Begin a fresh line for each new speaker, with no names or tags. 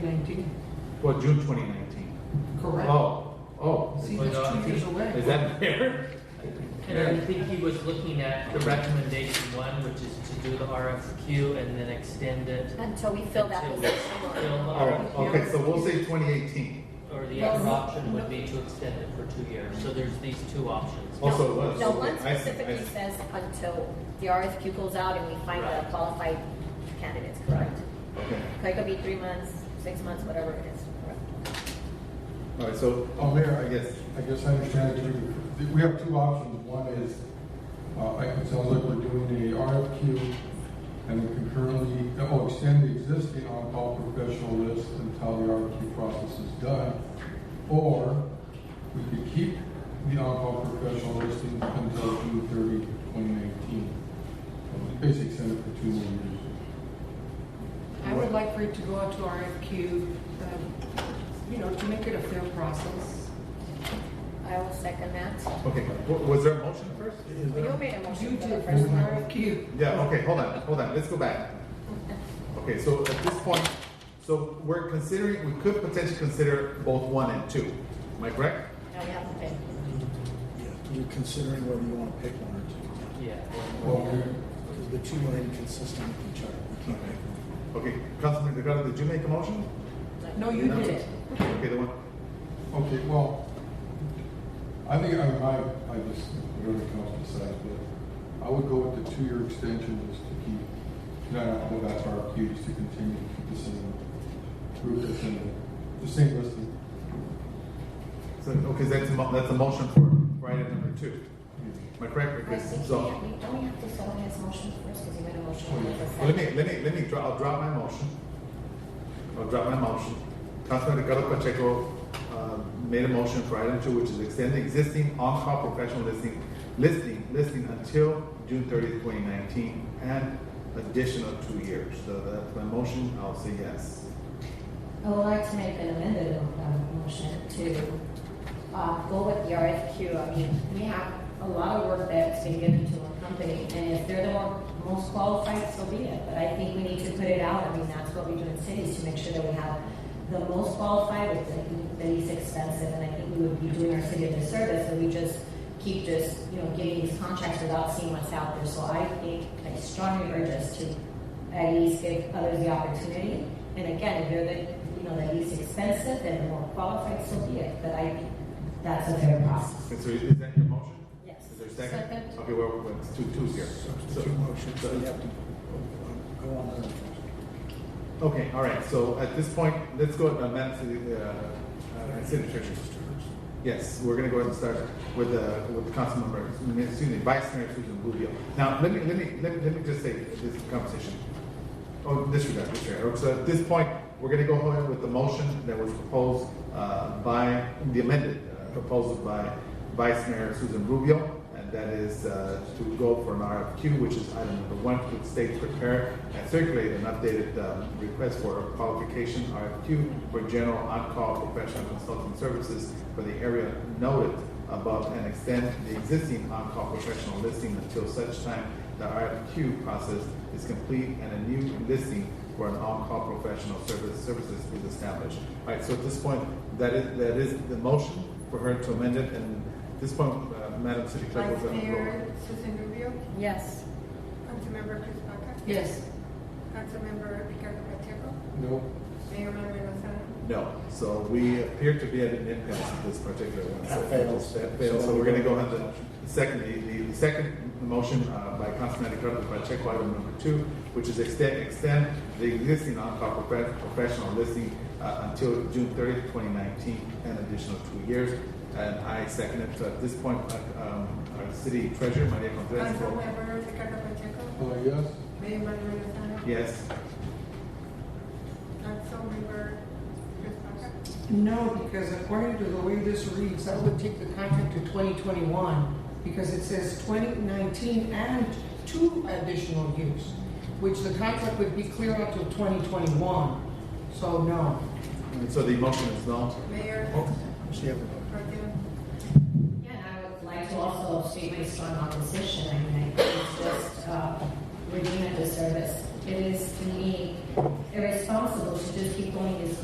Well, June 2019.
Correct.
Oh, oh.
See, that's two years
Is
away.
that fair?
And I think he was looking at the recommendation one, which is to do the RFQ and then extend it
Until we fill that
Until-
position.
till the
All right, okay,
RFQ.
so we'll say 2018.
Or the other option would be to extend it for two years. So there's these two options.
No,
Also, what-
No, one
I see, I see.
specifically says until the RFQ goes out and we find the
Right.
qualified candidates, correct?
Okay,
It could be three months, six months, whatever it is, correct?
all right, so,
Oh, Mayor,
I guess,
I guess I understand it too. We have two options. One is, uh, I- it sounds like we're doing a RFQ and we concurrently, oh, extend the existing on-call professional list until the RFQ process is done. Or we could keep the on-call professional listing until June 30, 2019. Basically extend it for two more years.
I would like for it to go out to RFQ, um, you know, to make it a fair process.
I will second that.
okay, w- was there a motion first?
You made a motion
You
for the
did
first
first
one.
RFQ.
Yeah, okay, hold on, hold on, let's go back. Okay, so at this point, so we're considering, we could potentially consider both one and two, am I correct?
Now we have to pay.
Yeah, You're considering whether you want to pick one or two,
Yeah.
Well, we-
because the two are inconsistent with each other. We can't pick one.
Okay, Councilman Delgado, did you make a motion?
No, you
No.
did.
Okay, the one,
Okay, well, I think I might, I just, whatever the council decides, but I would go with the two-year extension just to keep, not have to go back to RFQ, just to continue to keep the same group that's in the, the same listing.
so, okay, that's a, mo- that's a motion for right at number two, am I correct?
I
Because-
think we
so-
have, we don't have to settle his motion first because he made a motion. and there's a
Well, Let
second.
me, let me, let me, dro- I'll drop my motion. I'll drop my motion. Councilman Ricardo Pacheco uh, made a motion for item two, which is extend the existing on-call professional listing, listing, listing until June thirtieth, twenty nineteen, and additional two years. So that's my motion, I'll say yes.
I would like to make an amended um, motion to uh, go with the RFQ. I mean, we have a lot of work that's been given to a company, and if they're the one most qualified, so be it. But I think we need to put it out. I mean, that's what we do in cities, to make sure that we have the most qualified with the- the least expensive. And I think we would be doing our city a disservice if we just keep just, you know, giving these contracts without seeing what's out there. So I think, I strongly urge us to at least give others the opportunity. And again, if you're the, you know, the least expensive and the more qualified, so be it, but I, think that's a fair process.
And so is that your motion?
Yes.
Is there a second? Okay, well, well, it's two, two's here. So-
Two motions, so you
so-
have to uh, go on the first.
Okay, all right, so at this point, let's go to amend to the, uh, uh, city treasurer. Yes, we're gonna go ahead and start with, uh, with Councilmember, excuse me, Vice Mayor Susan Rubio. Now, let me, let me, let me, let me just say this conversation. Oh, disregard, disregard. So at this point, we're gonna go ahead with the motion that was proposed, uh, by, the amended uh, proposal by Vice Mayor Susan Rubio, and that is, uh, to go for an RFQ, which is item number one, which states prepare and circulate an updated, um, request for a qualification RFQ for general on-call professional consulting services for the area noted above and extend the existing on-call professional listing until such time the RFQ process is complete and a new listing for an on-call professional service, services is established. All right, so at this point, that is, that is the motion for her to amend it, and at this point, uh, Madam City Clerk
Vice
was on the
Mayor
floor.
Susan Rubio,
Yes.
Councilmember Chris Baca,
Yes.
Councilmember Ricardo Pacheco,
No,
Mayor Manuel Lozano.
No, so we appear to be at an impasse with this particular one. So
That fails.
That fails, so we're gonna go ahead and the second, the, the second motion, uh, by Councilman Ricardo Pacheco, item number two, which is extend, extend the existing on-call profe- professional listing, uh, until June thirtieth, twenty nineteen, an additional two years. And I second it, so at this point, uh, um, our city treasurer, Maria Contreras. will-
Councilmember Ricardo Pacheco,
uh, yes,
Mayor Manuel Lozano.
Yes,
Councilmember Chris Baca,
No, because according to the way this reads, that would take the contract to 2021, because it says 2019 and two additional years, which the contract would be clear out till 2021. So no.
and so the motion is null.
Mayor
So you have a vote.
Martin.
Yeah, and I would like to also state my strong opposition. I mean, I think it's just, uh, we're doing a disservice. It is, to me, irresponsible to just keep going these